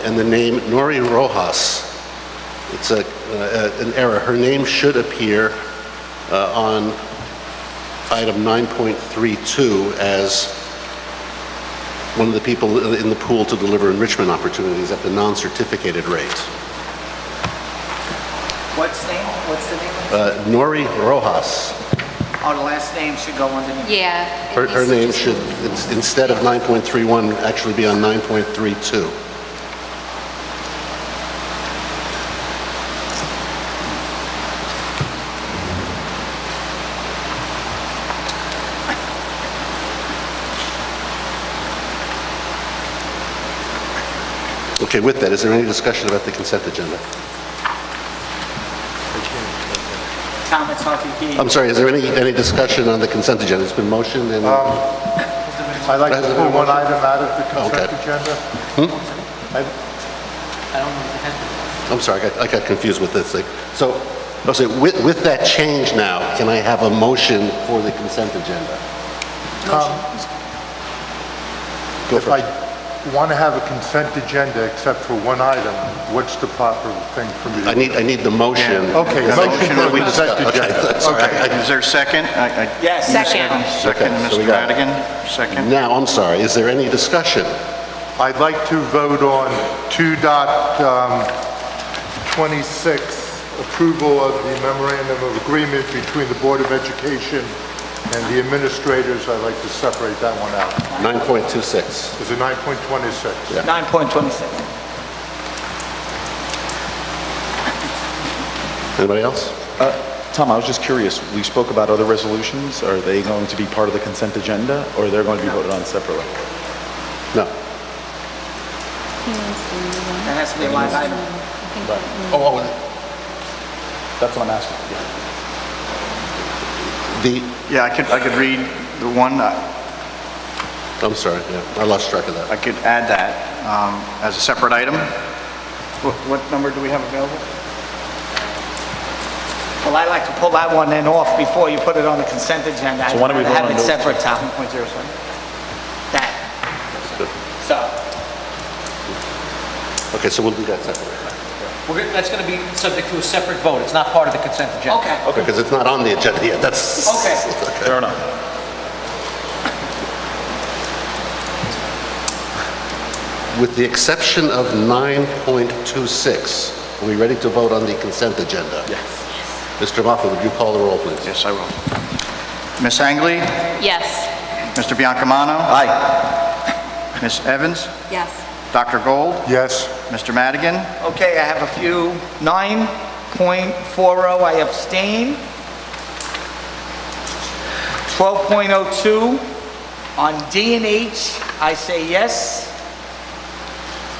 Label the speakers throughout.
Speaker 1: and the name Nori Rojas. It's a, uh, an error. Her name should appear uh, on item 9.32 as one of the people in the pool to deliver enrichment opportunities at the non-certificated rate.
Speaker 2: What's name, what's the name?
Speaker 1: Uh, Nori Rojas,
Speaker 2: Our last name should go underneath.
Speaker 3: Yeah. it
Speaker 1: her, her
Speaker 3: needs to
Speaker 1: name
Speaker 3: just-
Speaker 1: should, ins- instead of 9.31, actually be on 9.32. Okay, with that, is there any discussion about the consent agenda?
Speaker 2: Thomas Hockey.
Speaker 1: I'm sorry, is there any, any discussion on the consent agenda? It's been motioned and...
Speaker 4: I'd like to pull one item out of the consent
Speaker 1: Okay.
Speaker 4: agenda. I-
Speaker 1: I'm sorry, I got- I got confused with this thing. So, I'll say, with, with that change now, can I have a motion for the consent agenda? Go
Speaker 4: If I
Speaker 1: first.
Speaker 4: want to have a consent agenda except for one item, what's the proper thing for me?
Speaker 1: I
Speaker 4: to do?
Speaker 1: need, I need the motion.
Speaker 4: Okay,
Speaker 1: Because I-
Speaker 4: motion
Speaker 1: that we
Speaker 4: on the
Speaker 1: discussed.
Speaker 4: consent
Speaker 1: Okay,
Speaker 4: agenda.
Speaker 1: sorry, I-
Speaker 5: Okay, is there a second? I- I-
Speaker 2: Yes. Second.
Speaker 5: Second,
Speaker 1: Okay, so we
Speaker 5: Mr.
Speaker 1: got-
Speaker 5: Madigan,
Speaker 1: I-
Speaker 5: second.
Speaker 1: Now, I'm sorry, is there any discussion?
Speaker 4: I'd like to vote on 2.26, approval of the memorandum of agreement between the Board of Education and the administrators. I'd like to separate that one out.
Speaker 1: 9.26.
Speaker 4: Is it 9.26?
Speaker 2: 9.26.
Speaker 1: Anybody else?
Speaker 6: Uh, Tom, I was just curious, we spoke about other resolutions, are they going to be part of the consent agenda, or they're going to be voted on separately?
Speaker 1: No.
Speaker 2: That has to be a line item. Oh, uh,
Speaker 6: That's what I'm asking. yeah.
Speaker 1: The,
Speaker 5: Yeah, I could, I could read the one, I
Speaker 1: I'm sorry, yeah, I lost track of
Speaker 5: I
Speaker 1: that.
Speaker 5: could add that um, as a separate item. What- What number do we have available?
Speaker 2: Well, I like to pull that one then off before you put it on the consent agenda.
Speaker 6: So why don't we
Speaker 2: I'd
Speaker 6: vote
Speaker 2: rather
Speaker 6: on
Speaker 2: Have it
Speaker 6: those?
Speaker 2: separate, Tom. That. So,
Speaker 1: Okay, so we'll do that separately.
Speaker 7: We're, gonna- that's going to be subject to a separate vote, it's not part of the consent agenda.
Speaker 2: okay,
Speaker 1: Because it's not on the agenda yet, that's...
Speaker 2: okay.
Speaker 6: Fair enough.
Speaker 1: With the exception of 9.26, are we ready to vote on the consent agenda? Yes. Mr. Moffett, would you call the roll, please?
Speaker 5: Yes, I will. Ms. Angley?
Speaker 3: Yes.
Speaker 5: Mr. Biancamano? Aye. Ms. Evans?
Speaker 3: Yes.
Speaker 5: Dr. Gold?
Speaker 4: Yes?
Speaker 5: Mr. Madigan?
Speaker 2: Okay, I have a few. 9.40, oh, I abstain. 12.02, on D and H, I say yes.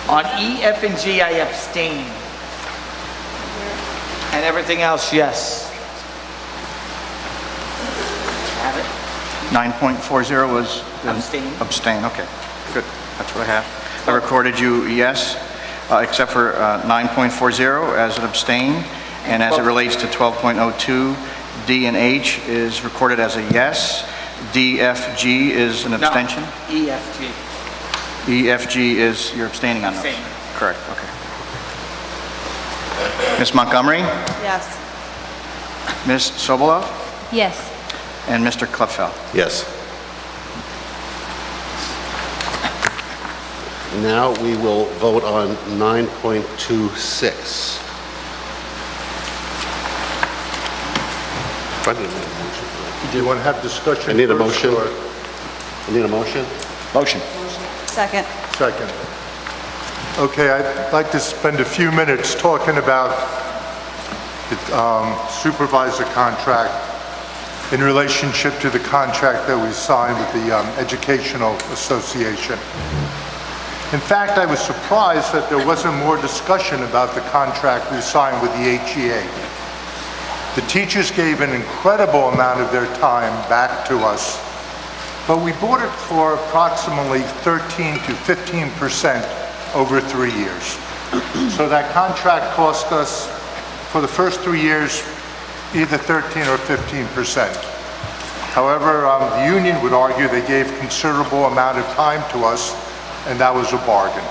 Speaker 2: On E, F, and G, I abstain. And everything else, yes. Have it?
Speaker 5: 9.40 was?
Speaker 2: Abstain.
Speaker 5: Abstain, okay. Good, that's what I have. I recorded you yes, uh, except for uh, 9.40 as an abstain, and as it relates to 12.02, D and H is recorded as a yes, D, F, G is an
Speaker 2: No.
Speaker 5: abstention?
Speaker 2: E, F, G.
Speaker 5: E, F, G is, you're abstaining on those?
Speaker 2: Abstain.
Speaker 5: Correct, okay. Ms. Montgomery,
Speaker 3: Yes.
Speaker 5: Ms. Sobolov,
Speaker 3: Yes.
Speaker 5: and Mr. Kleffeld.
Speaker 1: Yes. Now we will vote on 9.26. I need a motion.
Speaker 4: Do you want to have discussion?
Speaker 1: I need a
Speaker 4: first
Speaker 1: motion.
Speaker 4: or
Speaker 1: I Need a motion?
Speaker 6: Motion.
Speaker 3: Second.
Speaker 4: Second. Okay, I'd like to spend a few minutes talking about the um, supervisor contract in relationship to the contract that we signed with the um, Educational Association. In fact, I was surprised that there wasn't more discussion about the contract we signed with the HEA. The teachers gave an incredible amount of their time back to us, but we bought it for approximately 13 to 15 percent over three years. So that contract cost us, for the first three years, either 13 or 15 percent. However, um, the union would argue they gave considerable amount of time to us, and that was a bargain.